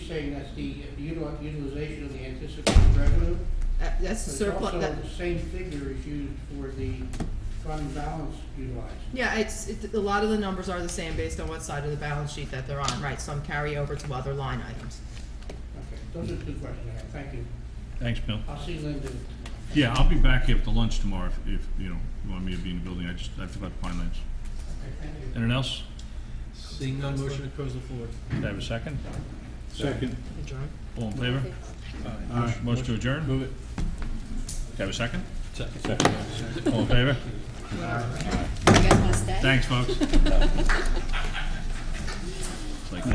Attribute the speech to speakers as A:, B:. A: saying that's the util- utilization of the anticipated revenue.
B: Uh, That's
A: But it's
B: surplus,
A: also
B: that,
A: the same figure is used for the fund balance utilized.
B: yeah, it's, it, a lot of the numbers are the same based on what side of the balance sheet that they're on, right? Some carry over to other line items.
A: Okay, those are two questions I have, thank you.
C: Thanks, Bill.
A: I'll see Linda.
C: Yeah, I'll be back after lunch tomorrow if, if, you know, you want me to be in the building. I just, I forgot Pine Lands.
A: Okay, thank you.
C: Anyone else?
D: Seeing none, motion to close the floor.
C: Do I have a second?
E: Second.
B: Adjourn.
C: All in favor?
E: Aye.
C: Motion to adjourn? Do
D: Move it.
C: I have a second?
D: Second.
C: All in favor?
F: You guys want to stay?
C: Thanks, folks.